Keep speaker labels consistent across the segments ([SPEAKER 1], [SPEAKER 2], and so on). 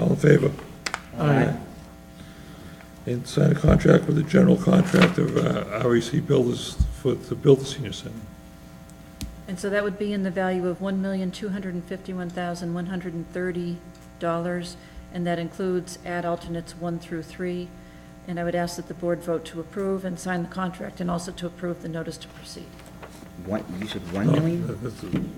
[SPEAKER 1] All in favor? Aye. And sign a contract with the general contractor of uh, REC Builders for, to build the senior center.
[SPEAKER 2] And so that would be in the value of one million, two hundred and fifty-one thousand, one hundred and thirty dollars, and that includes add alternates one through three. And I would ask that the board vote to approve and sign the contract, and also to approve the notice to proceed.
[SPEAKER 3] One, you said one million?
[SPEAKER 1] Uh, that's- some-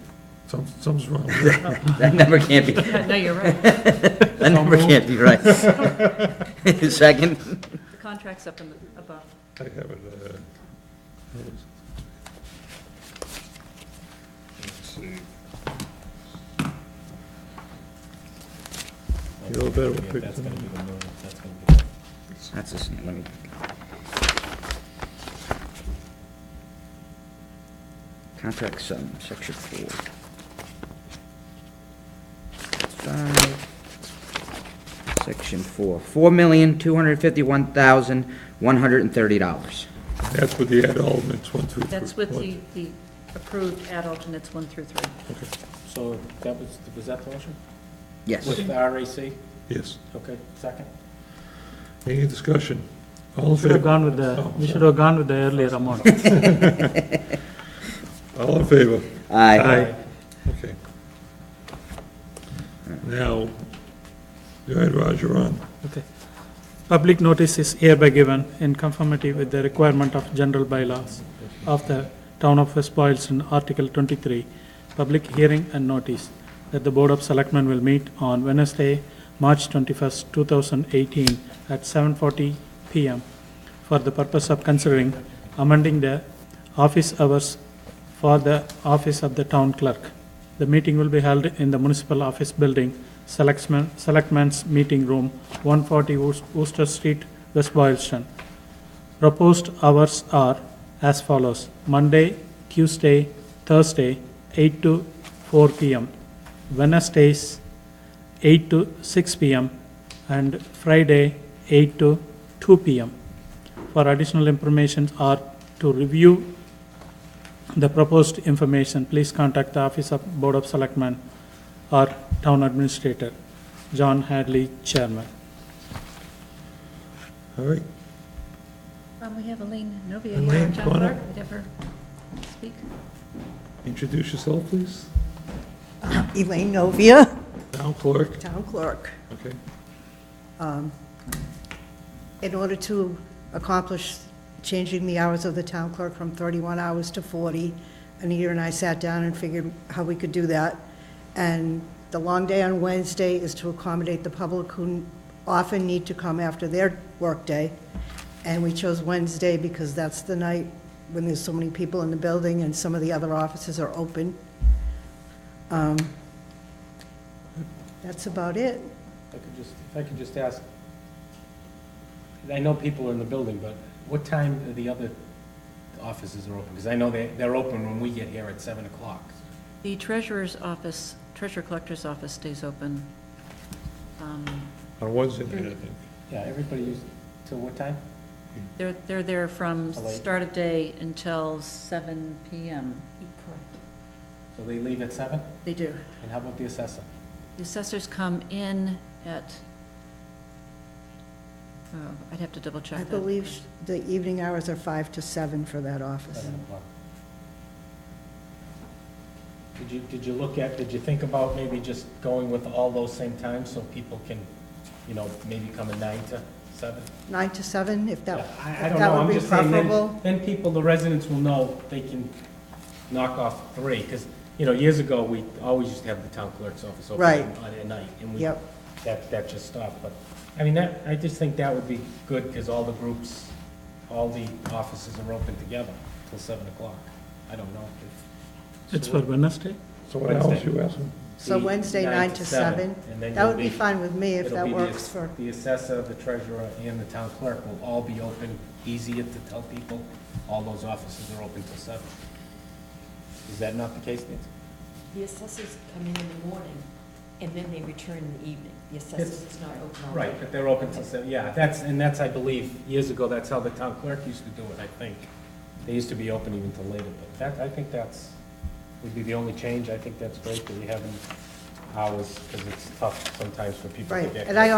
[SPEAKER 1] Something's wrong with that.
[SPEAKER 3] That number can't be,
[SPEAKER 2] No, you're right. The
[SPEAKER 3] that number can't be right. Second?
[SPEAKER 2] contract's up in the, above.
[SPEAKER 1] I have it, uh, that was- let's see. You know better what
[SPEAKER 4] That's
[SPEAKER 1] picture.
[SPEAKER 4] gonna be the moon, that's gonna be the.
[SPEAKER 3] That's the same, let me, contract sum, section four. Five, section four, four million, two hundred fifty-one thousand, one hundred and thirty dollars.
[SPEAKER 1] That's with the add alternates, one through.
[SPEAKER 2] That's
[SPEAKER 1] three-
[SPEAKER 2] with
[SPEAKER 1] one-
[SPEAKER 2] the, the approved add alternates one through three.
[SPEAKER 4] So that was, was that the motion?
[SPEAKER 3] Yes.
[SPEAKER 4] With the RAC?
[SPEAKER 1] Yes.
[SPEAKER 4] Okay, second?
[SPEAKER 1] Any discussion? All in
[SPEAKER 5] Should have
[SPEAKER 1] favor?
[SPEAKER 5] gone with the,
[SPEAKER 1] Oh,
[SPEAKER 5] we should have gone with the earlier amount.
[SPEAKER 1] All in favor?
[SPEAKER 3] Aye.
[SPEAKER 1] Okay. Now, go ahead, Roger, you're on.
[SPEAKER 5] Okay. Public notice is hereby given in conformity with the requirement of general bylaws of the Town of West Boylston, Article 23, public hearing and notice that the Board of Selectmen will meet on Wednesday, March 21st, 2018, at 7:40 PM for the purpose of considering amending the office hours for the office of the town clerk. The meeting will be held in the municipal office building, Selectmen, Selectmen's Meeting Room, 140 Wor- Worcester Street, West Boylston. Proposed hours are as follows, Monday, Tuesday, Thursday, 8 to 4 PM, Wednesdays, 8 to 6 PM, and Friday, 8 to 2 PM. For additional information or to review the proposed information, please contact the Office of Board of Selectmen or Town Administrator, John Hadley, Chairman.
[SPEAKER 1] All right,
[SPEAKER 2] Um, we have Elaine Novia here,
[SPEAKER 1] Elaine,
[SPEAKER 2] town
[SPEAKER 1] come on up.
[SPEAKER 2] clerk, would ever speak?
[SPEAKER 1] introduce yourself, please.
[SPEAKER 6] Elaine Novia,
[SPEAKER 1] Town clerk,
[SPEAKER 6] Town Clerk.
[SPEAKER 1] okay.
[SPEAKER 6] In order to accomplish changing the hours of the town clerk from 31 hours to 40, Anita and I sat down and figured how we could do that. And the long day on Wednesday is to accommodate the public who often need to come after their workday. And we chose Wednesday because that's the night when there's so many people in the building and some of the other offices are open. Um, That's about it.
[SPEAKER 4] If I could just, if I could just ask, I know people are in the building, but what time are the other offices are open? Because I know they, they're open when we get here at seven o'clock.
[SPEAKER 2] The treasurer's office, treasurer collector's office stays open. Um,
[SPEAKER 1] On Wednesday night, I think.
[SPEAKER 4] Yeah, everybody used, till what time?
[SPEAKER 2] They're, they're there from
[SPEAKER 4] How late?
[SPEAKER 2] start of day until seven PM.
[SPEAKER 4] So they leave at seven?
[SPEAKER 2] They do.
[SPEAKER 4] And how about the assessor?
[SPEAKER 2] The assessors come in at, oh, I'd have to double check
[SPEAKER 6] I
[SPEAKER 2] that.
[SPEAKER 6] believe sh- the evening hours are five to seven for that office.
[SPEAKER 4] Seven o'clock. Did you, did you look at, did you think about maybe just going with all those same times so people can, you know, maybe come at nine to seven?
[SPEAKER 6] Nine to seven, if that,
[SPEAKER 4] I, I
[SPEAKER 6] if
[SPEAKER 4] don't
[SPEAKER 6] that
[SPEAKER 4] know, I'm
[SPEAKER 6] would be
[SPEAKER 4] just saying, then,
[SPEAKER 6] preferable.
[SPEAKER 4] then people, the residents will know they can knock off three, because, you know, years ago, we always used to have the town clerk's office open
[SPEAKER 6] Right.
[SPEAKER 4] on- on at night, and we,
[SPEAKER 6] Yep.
[SPEAKER 4] that, that just stopped, but, I mean, that, I just think that would be good, because all the groups, all the offices are open together till seven o'clock. I don't know if
[SPEAKER 5] It's for Wednesday?
[SPEAKER 1] So what hours
[SPEAKER 4] Wednesday.
[SPEAKER 1] you asking?
[SPEAKER 6] So
[SPEAKER 4] the
[SPEAKER 6] Wednesday, nine to seven,
[SPEAKER 4] and then
[SPEAKER 6] that
[SPEAKER 4] you'll
[SPEAKER 6] would be fine with me if
[SPEAKER 4] it'll
[SPEAKER 6] that
[SPEAKER 4] be the
[SPEAKER 6] works
[SPEAKER 4] ass-
[SPEAKER 6] for,
[SPEAKER 4] The assessor, the treasurer, and the town clerk will all be open, easier to tell people, all those offices are open till seven. Is that not the case, Nancy?
[SPEAKER 7] The assessors come in in the morning, and then they return in the evening. The assessors is not open all
[SPEAKER 4] Right,
[SPEAKER 7] night.
[SPEAKER 4] but they're open till seven, yeah, that's, and that's, I believe, years ago, that's how the town clerk used to do it, I think. They used to be open even till later, but that, I think that's, would be the only change, I think that's great that we haven't, hours, because it's tough sometimes for people to
[SPEAKER 6] Right,
[SPEAKER 4] get.
[SPEAKER 6] and I